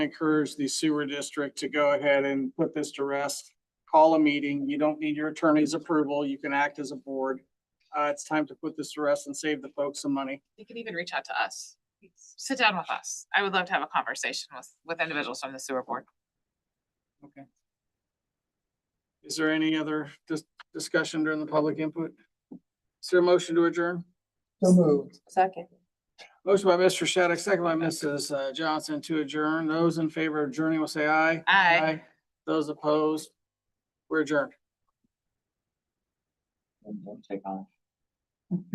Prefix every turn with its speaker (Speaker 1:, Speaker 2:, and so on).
Speaker 1: encourage the sewer district to go ahead and put this to rest. Call a meeting. You don't need your attorney's approval. You can act as a board. Uh, it's time to put this to rest and save the folks some money.
Speaker 2: They can even reach out to us. Sit down with us. I would love to have a conversation with, with individuals from the sewer board.
Speaker 1: Okay. Is there any other dis- discussion during the public input? Is there a motion to adjourn?
Speaker 3: So moved.
Speaker 4: Second.
Speaker 1: Motion by Mr. Shattuck, second by Mrs. uh, Johnson to adjourn. Those in favor of adjourning will say aye.
Speaker 2: Aye.
Speaker 1: Those opposed, we're adjourned.
Speaker 3: Don't take off.